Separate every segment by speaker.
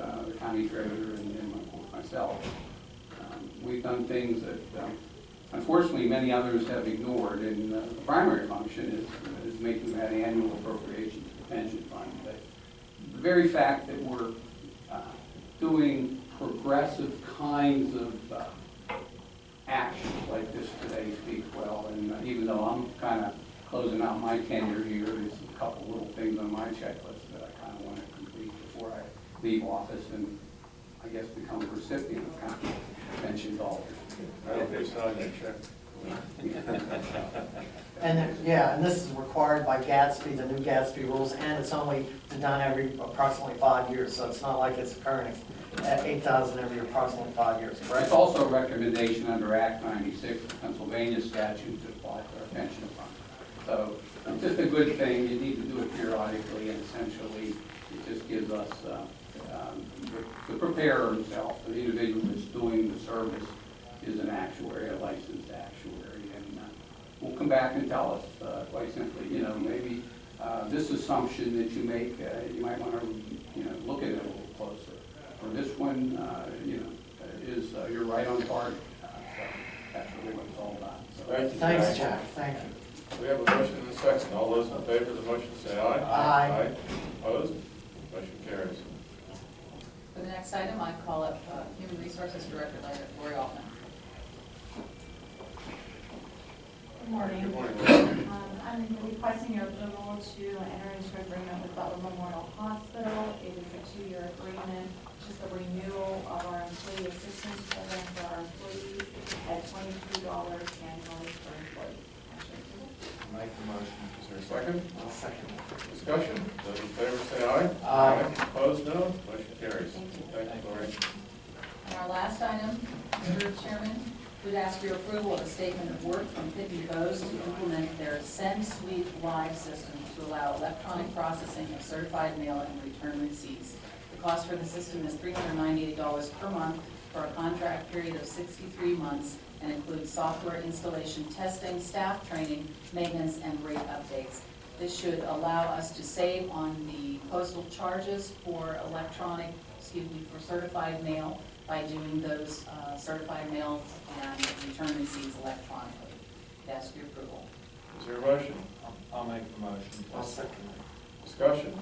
Speaker 1: uh, county treasurer and and my- myself. Um, We've done things that um, unfortunately many others have ignored, and uh, the primary function is, is making that annual appropriation to the pension fund. But The very fact that we're uh, doing progressive kinds of uh, actions like this today speaks well, and uh, even though I'm kind of closing out my tenure here, there's a couple little things on my checklist that I kind of want to complete before I leave office and, I guess, become a recipient of county pension dollars.
Speaker 2: I don't think so, I didn't check.
Speaker 3: And, it- yeah, and this is required by Gatsby, the new Gatsby rules, and it's only done every approximately five years, so it's not like it's occurring at eight thousand every approximately five years,
Speaker 1: It's
Speaker 3: correct?
Speaker 1: also a recommendation under Act 96, of Pennsylvania statute to apply to our pension fund. So it's just a good thing, you need to do it periodically, and essentially, it just gives us, uh, um, the preparer himself, the individual that's doing the service is an actuary, a licensed actuary, and uh, will come back and tell us, uh, quite simply, you know, maybe uh, this assumption that you make, uh, you might want to, you know, look at it a little closer. Or this one, uh, you know, uh, is, uh, you're right on target. Uh, so That's really what it's all about. So,
Speaker 2: Thank you,
Speaker 3: Thanks, Jack, thank you.
Speaker 2: We have a motion and a second. All those in favor of the motion say aye.
Speaker 3: Aye.
Speaker 2: Opposed? Motion carries.
Speaker 4: For the next item, I call up uh, Human Resources Director Lori Altman.
Speaker 5: Good morning.
Speaker 2: Good morning. Lisa.
Speaker 5: Um, I'm requesting your approval to enter into agreement with Butler Memorial Hospital. It is a two-year agreement, just a renewal of our employee assistance program for our employees at twenty-two dollars annually per employee. Actually, approval?
Speaker 2: Make the motion. Is there a second?
Speaker 3: I'll second.
Speaker 2: Discussion? Those in favor say aye.
Speaker 3: Aye.
Speaker 2: Opposed, no. Motion carries.
Speaker 5: Thank you.
Speaker 2: Thank you, Lori.
Speaker 4: And our last item, Mr. Chairman, would ask for your approval of a statement of work from Pitney Bowes to implement their Send Suite Live system to allow electronic processing of certified mail and return receipts. The cost for the system is $398 per month for a contract period of 63 months and includes software installation, testing, staff training, maintenance, and rate updates. This should allow us to save on the postal charges for electronic, excuse me, for certified mail by doing those uh, certified mails and return receipts electronically. That's your approval.
Speaker 2: Is there a motion?
Speaker 6: I'll make the motion.
Speaker 3: I'll second.
Speaker 2: Discussion?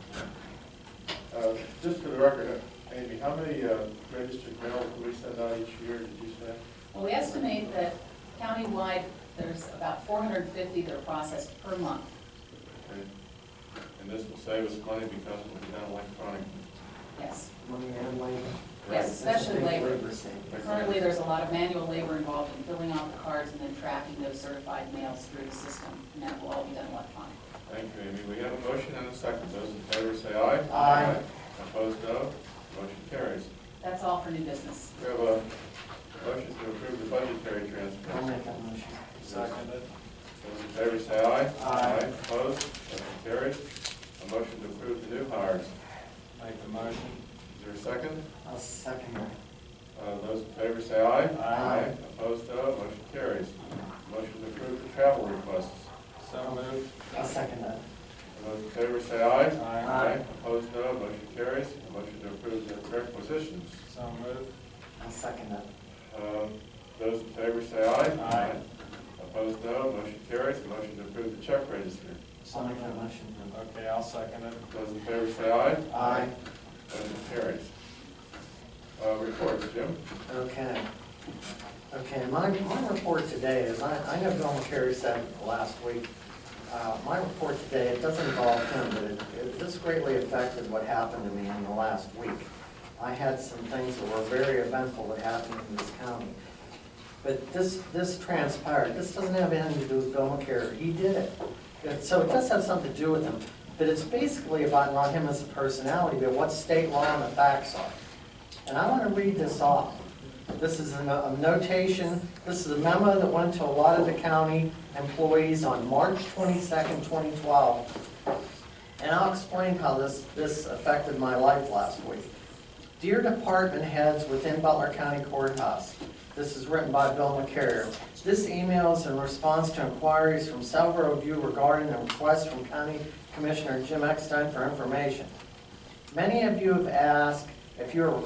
Speaker 2: Uh, Just for the record, Amy, how many uh, registered mail do we send out each year, did you say?
Speaker 4: Well, we estimate that countywide, there's about 450 that are processed per month.
Speaker 2: Okay. And this will save us money because it will be done electronically.
Speaker 4: Yes.
Speaker 3: Money and labor.
Speaker 4: Yes, especially
Speaker 3: That's a big
Speaker 4: labor.
Speaker 3: savings.
Speaker 4: Currently, there's a lot of manual labor involved in filling out the cards and then tracking those certified mails through the system, and that will all be done electronically.
Speaker 2: Thank you, Amy. We have a motion and a second. Those in favor say aye.
Speaker 3: Aye.
Speaker 2: Opposed, no. Motion carries.
Speaker 4: That's all for new business.
Speaker 2: We have a motion to approve the budgetary transfer.
Speaker 3: I'll make that motion.
Speaker 6: Seconded.
Speaker 2: Those in favor say aye.
Speaker 3: Aye.
Speaker 2: Opposed, motion carries. A motion to approve the new hires.
Speaker 6: Make the motion.
Speaker 2: Is there a second?
Speaker 3: I'll second it.
Speaker 2: Uh, Those in favor say aye.
Speaker 3: Aye.
Speaker 2: Opposed, no. Motion carries. Motion to approve the travel requests.
Speaker 6: So moved.
Speaker 3: I'll second that.
Speaker 2: Those in favor say aye.
Speaker 6: Aye.
Speaker 2: Opposed, no. Motion carries. A motion to approve the requisitions.
Speaker 6: So moved.
Speaker 3: I'll second that.
Speaker 2: Um, Those in favor say aye.
Speaker 6: Aye.
Speaker 2: Opposed, no. Motion carries. A Motion to approve the check register.
Speaker 3: I'll make that motion.
Speaker 6: Okay, I'll second it.
Speaker 2: Those in favor say aye.
Speaker 3: Aye.
Speaker 2: Motion carries. Uh, Reports, Jim?
Speaker 3: Okay. Okay, my, my report today is, I, I know Bill McCary said last week, uh, my report today, it doesn't involve him, but it, it, this greatly affected what happened to me in the last week. I had some things that were very eventful that happened in this county. But this, this transpired, this doesn't have anything to do with Bill McCary, he did it. And So it does have something to do with him, but it's basically about not him as a personality, but what state law and the facts are. And I want to read this off. This is a no- a notation, this is a memo that went to a lot of the county employees on March 22nd, 2012. And I'll explain how this, this affected my life last week. Dear department heads within Butler County Courthouse, this is written by Bill McCarrier. This email is in response to inquiries from several of you regarding the request from County Commissioner Jim Eckstein for information. Many of you have asked if you are